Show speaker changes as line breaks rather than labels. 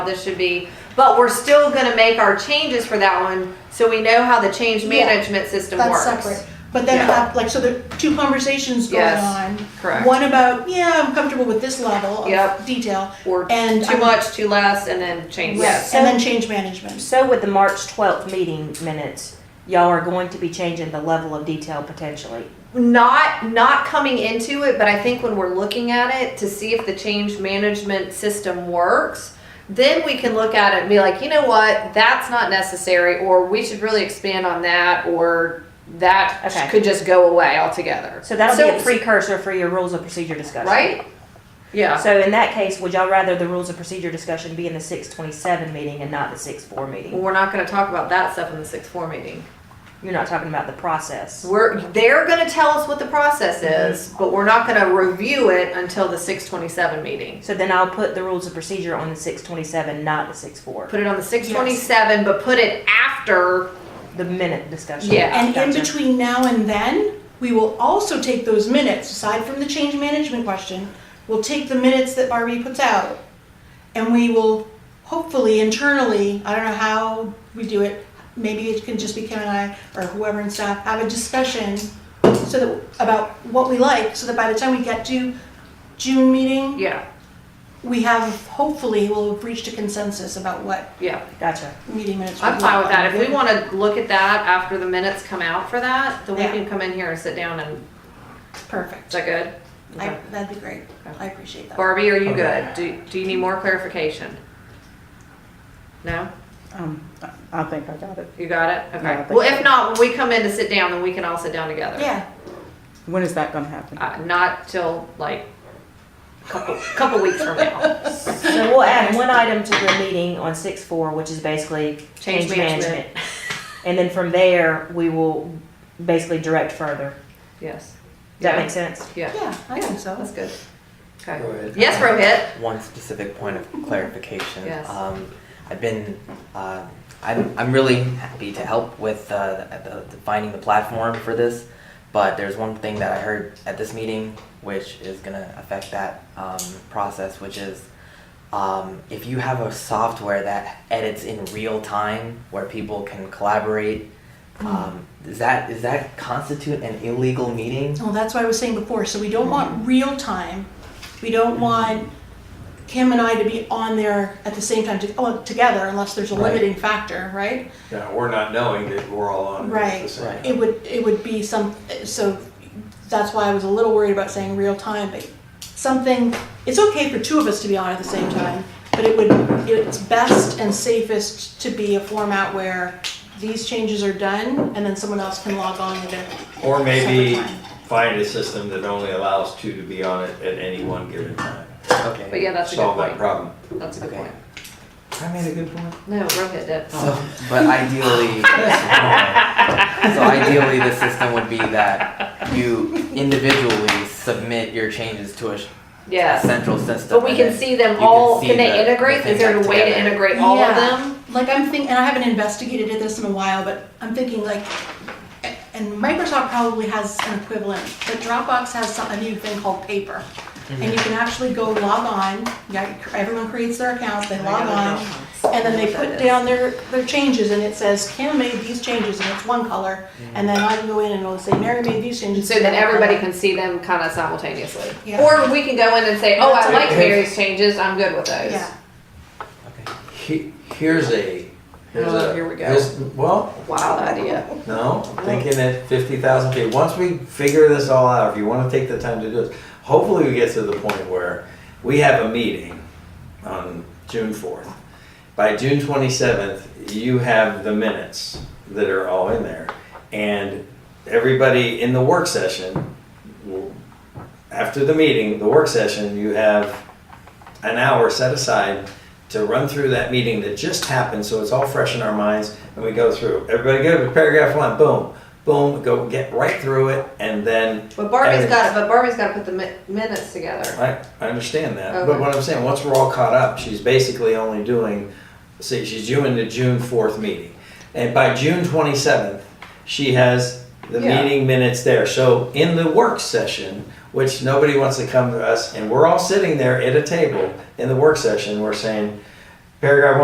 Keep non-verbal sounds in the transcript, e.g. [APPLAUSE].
this should be, but we're still gonna make our changes for that one, so we know how the change
Yeah.
management system
That's
works.
separate. But then
Yeah.
have, like, so there are two conversations going
Yes,
on.
correct.
One about, yeah, I'm comfortable with this level
Yep.
of detail.
Or
And
too
I'm-
much, too less, and then change.
Yes.
And then change management.
So with the March 12th meeting minutes, y'all are going to be changing the level of detail potentially.
Not, not coming into it, but I think when we're looking at it to see if the change management system works, then we can look at it and be like, you know what, that's not necessary, or we should really expand on that, or that
Okay.
could just go away altogether.
So that'll be a
So-
precursor for your rules of procedure discussion.
Right? Yeah.
So in that case, would y'all rather the rules of procedure discussion be in the 627 meeting and not the 64
Well,
meeting?
we're not going to talk about that stuff in the six four meeting.
You're not talking about the process.
We're they're going to tell us what the process
Mm-hmm.
is, but we're not going to review it until the six twenty seven meeting.
So then I'll put the rules of procedure on the 627, not the 64.
Put it on the six twenty seven, but put it after.
The minute discussion.
Yeah.
And in
Gotcha.
between now and then, we will also take those minutes, aside from the change management question, we'll take the minutes that Barbie puts out. And we will hopefully internally, I don't know how we do it, maybe it can just be Kim and I or whoever and staff, have a discussion so that, about what we like, so that by the time we get to June meeting,
Yeah,
we have, hopefully, we'll have reached a consensus about what
yeah.
Gotcha.
meeting minutes.
I'm
we
fine
want.
with that. If we want to look at that after the minutes come out for that, then we
Yeah.
can come in here and sit down. And is
Perfect.
that good?
I, that'd be great. I appreciate that.
Barbie, are you
Okay.
good? Do Do you need more clarification? No,
Um, I- I think I got it.
you got it. Okay.
No, I think
well, if
so.
not, when we come in to sit down, then we can all sit down together.
Yeah,
When is that gonna happen?
Uh, not till like a couple couple weeks from now.
So we'll add one item to the meeting on 64, which is basically
Change
change
management.
management. And then from there, we will basically direct further.
Yes.
Does that
Yeah.
make sense?
Yeah.
yeah, I think so.
That's good.
Go
Okay.
ahead.
Yes, Rohit.
One specific point of clarification.
Yes.
Um, I've been, uh, I'm, I'm really happy to help with uh, the, the, finding the platform for this, but there's one thing that I heard at this meeting which is going to affect that um, process, which is um, if you have a software that edits in real time where people can collaborate,
Mm-hmm.
um, does that does that constitute an illegal meeting?
Well, that's what I was saying before, so we don't want real time. We don't want Kim and I to be on there at the same time, to, oh, together, unless there's a
Right.
limiting factor, right?
Yeah, we're not knowing that we're all on it at
Right.
the same
Right.
time.
It would, it would be some, so that's why I was a little worried about saying real time, but something, it's okay for two of us to be on at the same time, but it would, it's best and safest to be a format where these changes are done, and then someone else can log on with it.
Or maybe
Separate time.
find a system that only allows two to be on it at any one given time.
Okay.
But yeah, that's a good
Solve that
point.
problem.
That's a good
Okay.
point.
I made a good point.
No, Rohit did.
So, but ideally,
[LAUGHS]
Uh,
so ideally, the system would be that you individually submit your changes to a sh-
Yes.
central system.
But we
and
can
then
see them
you
all.
see
Can they
the- the
integrate? Is
things
there a way to
together.
integrate all of
Yeah.
them?
Like I'm thinking, and I haven't investigated this in a while, but I'm thinking like, a- and Microsoft probably has an equivalent, but Dropbox has some, a new thing called Paper. And you can actually go log on, yeah, everyone creates their accounts, they log on, and then they put down their, their changes, and it says, Kim made these changes, and it's one color, and then I can go in and it'll say, Mary made these changes.
So then everybody can see them kind of simultaneously.
Yeah.
Or we can go in and say, oh, I
That's
like
okay.
Mary's changes. I'm good with those.
Yeah,
Okay.
He- Here's a, here's
Oh,
a.
here we go.
here's- Well,
Wild idea.
no, I'm thinking at fifty thousand feet, once we figure this all out, if you wanna take the time to do this, hopefully we get to the point where we have a meeting on June fourth. By June twenty-seventh, you have the minutes that are all in there. And everybody in the work session, will- after the meeting, the work session, you have an hour set aside to run through that meeting that just happened, so it's all fresh in our minds, and we go through. Everybody good with paragraph one, boom, boom, go get right through it, and then.
But Barbie's
and-
got. But Barbie's got to put the mi- minutes together.
I, I understand that,
Okay.
but what I'm saying, once we're all caught up, she's basically only doing, see, she's doing the June fourth meeting, and by June twenty seventh, she has the
Yeah.
meeting minutes there. So in the work session, which nobody wants to come to us, and we're all sitting there at a table in the work session, we're saying, Paragraph